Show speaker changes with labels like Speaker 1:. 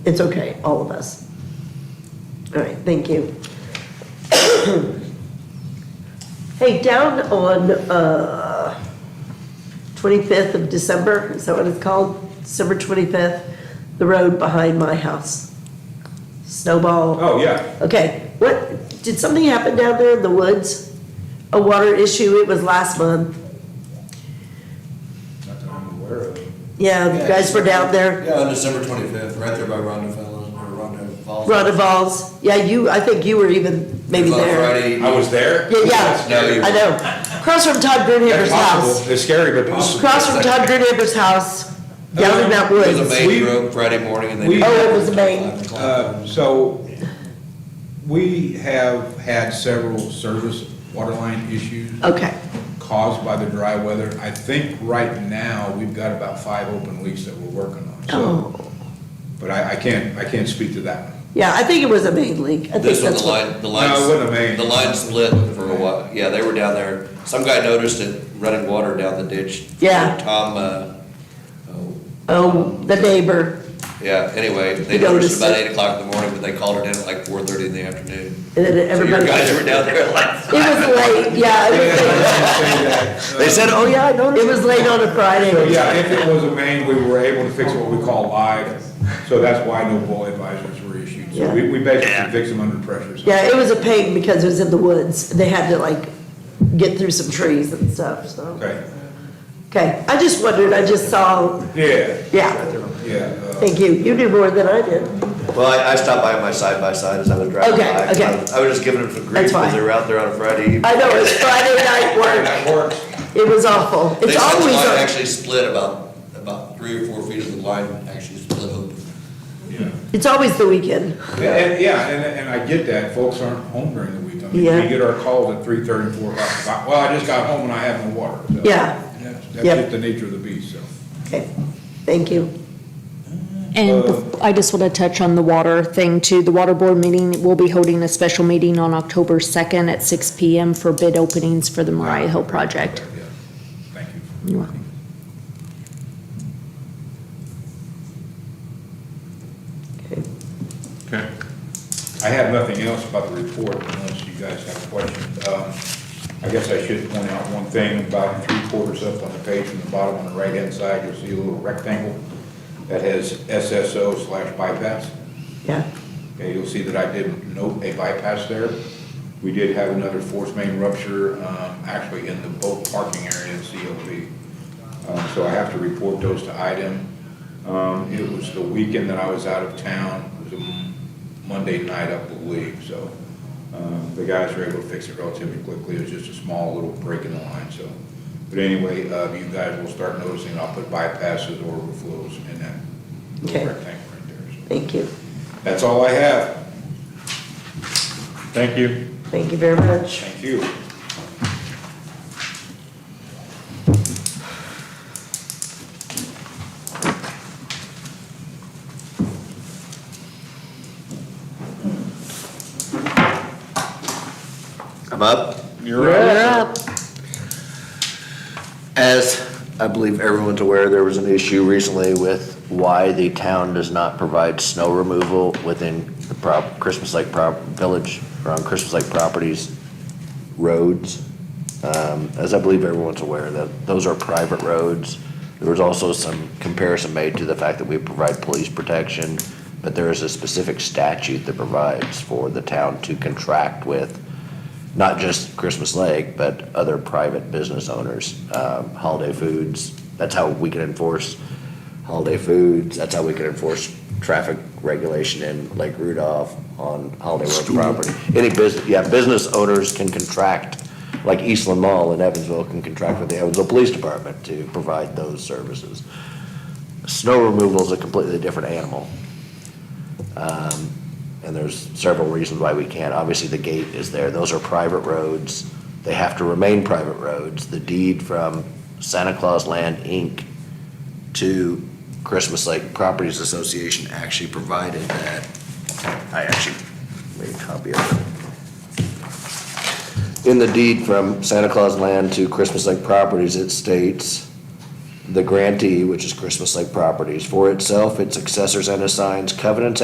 Speaker 1: It's okay, all of us. All right, thank you. Hey, down on uh, 25th of December, is that what it's called? December 25th, the road behind my house. Snowball.
Speaker 2: Oh, yeah.
Speaker 1: Okay, what, did something happen down there in the woods? A water issue, it was last month.
Speaker 2: Not that I'm aware of.
Speaker 1: Yeah, you guys were down there,
Speaker 3: Yeah, on December twenty-fifth, right there by Ronda Fallon, or Ronda Falls.
Speaker 1: Ronaval's. Yeah, you, I think you were even maybe
Speaker 3: It was on
Speaker 1: there.
Speaker 3: Friday.
Speaker 2: I was there?
Speaker 1: Yeah,
Speaker 2: That's
Speaker 3: No,
Speaker 1: yeah,
Speaker 2: scary.
Speaker 3: you-
Speaker 1: I know. Across from Todd Grunhaber's
Speaker 2: That's
Speaker 1: house.
Speaker 2: possible. It's scary, but possible.
Speaker 1: Across from Todd Grunhaber's house, down in that
Speaker 3: It was a
Speaker 1: woods.
Speaker 3: main road Friday morning and they.
Speaker 2: We-
Speaker 3: did
Speaker 2: Oh,
Speaker 1: it was a main.
Speaker 3: Five o'clock.
Speaker 2: Uh, So, we have had several service water line issues
Speaker 1: Okay,
Speaker 2: caused by the dry weather. I think right now, we've got about five open leaks that we're working on, so.
Speaker 1: oh,
Speaker 2: But I, I can't, I can't speak to that one.
Speaker 1: yeah, I think it was a main leak. I think
Speaker 3: This one,
Speaker 1: that's
Speaker 3: the
Speaker 1: what.
Speaker 3: line, the line.
Speaker 2: No, it wasn't a main.
Speaker 3: The line split for a while, yeah, they were down there, some guy noticed it running water down the ditch.
Speaker 1: Yeah.
Speaker 3: Tom, uh, oh,
Speaker 1: Oh, the neighbor,
Speaker 3: yeah, anyway, they
Speaker 1: He noticed
Speaker 3: noticed about
Speaker 1: it.
Speaker 3: eight o'clock in the morning, but they called it in at like four thirty in the afternoon.
Speaker 1: and then
Speaker 3: So your
Speaker 1: everybody.
Speaker 3: guys were down there at like.
Speaker 1: It was late, yeah, it was late.
Speaker 3: They said, oh yeah, I noticed.
Speaker 1: It was late on a
Speaker 2: So,
Speaker 1: Friday.
Speaker 2: uh, yeah, if it was a main, we were able to fix what we call live, so that's why no bull advisories were issued. So we, we basically fix them under pressure. so.
Speaker 1: Yeah, it was a pain because it was in the woods. They had to like get through some trees and stuff, so.
Speaker 2: Okay,
Speaker 1: Okay, I just wondered, I just saw,
Speaker 2: yeah,
Speaker 1: yeah,
Speaker 2: yeah. uh,
Speaker 1: thank you. You knew more than I did.
Speaker 3: Well, I, I stopped by my side by side as I was driving
Speaker 1: Okay,
Speaker 3: by.
Speaker 1: okay.
Speaker 3: I was just giving them some grief
Speaker 1: That's
Speaker 3: because
Speaker 1: fine.
Speaker 3: they were out there on a Friday evening.
Speaker 1: I know, it was Friday night work.
Speaker 2: That works.
Speaker 1: It was awful.
Speaker 3: They
Speaker 1: It's
Speaker 3: said the
Speaker 1: always,
Speaker 3: line
Speaker 1: a-
Speaker 3: actually split about, about three or four feet of the line actually split open.
Speaker 2: Yeah.
Speaker 1: it's always the weekend.
Speaker 2: And, and- yeah, and, and I get that, folks aren't home during the week, I mean,
Speaker 1: Yeah.
Speaker 2: we get our calls at three thirty, four o'clock, About, well, I just got home and I have no water, so.
Speaker 1: Yeah.
Speaker 2: That's that's
Speaker 1: Yep.
Speaker 2: just the nature of the beast, so.
Speaker 1: Okay, thank you.
Speaker 4: And bef- I just want to touch on the water thing too. The water board meeting, we'll be holding a special meeting on October 2nd at 6 PM for bid openings for the Mariah Hill project.
Speaker 2: yeah. Thank you.
Speaker 4: You're welcome.
Speaker 1: Okay.
Speaker 2: Okay. I have nothing else about the report unless you guys have questions. Um, I guess I should point out one thing, about three quarters up on the page from the bottom on the right-hand side, you'll see a little rectangle that has SSO slash bypass.
Speaker 1: Yeah,
Speaker 2: Okay, you'll see that I did note a bypass there. We did have another force main rupture, um, actually in the boat parking area of COP. Um, so I have to report those to IDEM. Um, it was the weekend that I was out of town, it was a Monday night, I believe, so, um, the guys were able to fix it relatively quickly, it was just a small little break in the line, so. But anyway, uh, you guys will start noticing, I'll put bypasses or overflows in that
Speaker 1: Okay.
Speaker 2: little rectangle right there, so.
Speaker 1: thank you.
Speaker 2: That's all I have. Thank you.
Speaker 1: Thank you very much.
Speaker 2: Thank you.
Speaker 3: I'm up.
Speaker 2: You're
Speaker 3: As I believe everyone's aware, there was an issue recently with why the town does not provide snow removal within the prop, Christmas Lake prop, village, around Christmas Lake properties, roads. Um, as I believe everyone's aware, that those are private roads. There was also some comparison made to the fact that we provide police protection, but there is a specific statute that provides for the town to contract with not just Christmas Lake, but other private business owners, um, Holiday Foods. That's how we can enforce Holiday Foods. That's how we can enforce traffic regulation in Lake Rudolph on Holiday World property. Any business, yeah, business owners can contract, like Eastland Mall in Evansville can contract with the Evansville Police Department to provide those services. Snow removal is a completely different animal. Um, And there's several reasons why we can't. Obviously, the gate is there. Those are private roads. They have to remain private roads. The deed from Santa Claus Land, Inc. to Christmas Lake Properties Association actually provided that. I actually made a copy of it in the deed from Santa Claus Land to Christmas Lake Properties, it states
Speaker 5: the grantee, which is Christmas Lake Properties, for itself, its successors and assigns covenants